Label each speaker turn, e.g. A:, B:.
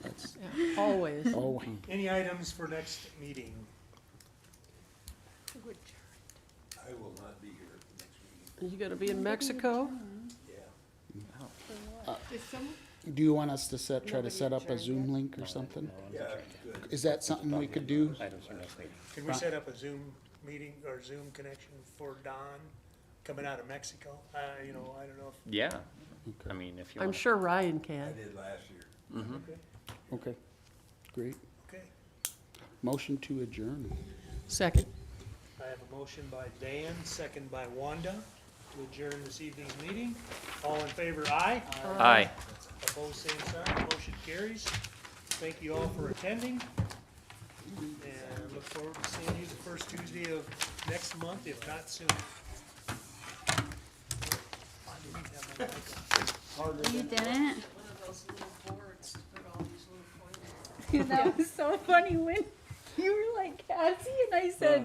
A: Always.
B: Oh,
C: Any items for next meeting?
D: I will not be here at the next meeting,
A: You gonna be in Mexico?
D: yeah.
E: Is someone,
B: do you want us to set, try to set up a Zoom link or something?
D: Yeah, it'd be good.
B: Is that something we could do?
C: Can we set up a Zoom meeting or Zoom connection for Don coming out of Mexico? Uh, you know, I don't know if,
F: Yeah, I mean, if you
A: I'm
F: want.
A: sure Ryan
D: I
A: can.
D: did last year.
B: Okay, great.
C: okay.
B: Motion to adjourn.
A: Second.
C: I have a motion by Dan, second by Wanda, to adjourn this evening's meeting. All in favor, aye.
F: Aye.
C: Opposed, same sign, motion carries. Thank you all for attending. And I look forward to seeing you the first Tuesday of next month, if not soon.
G: You didn't?
E: that was so funny when you were like Cassie and I said,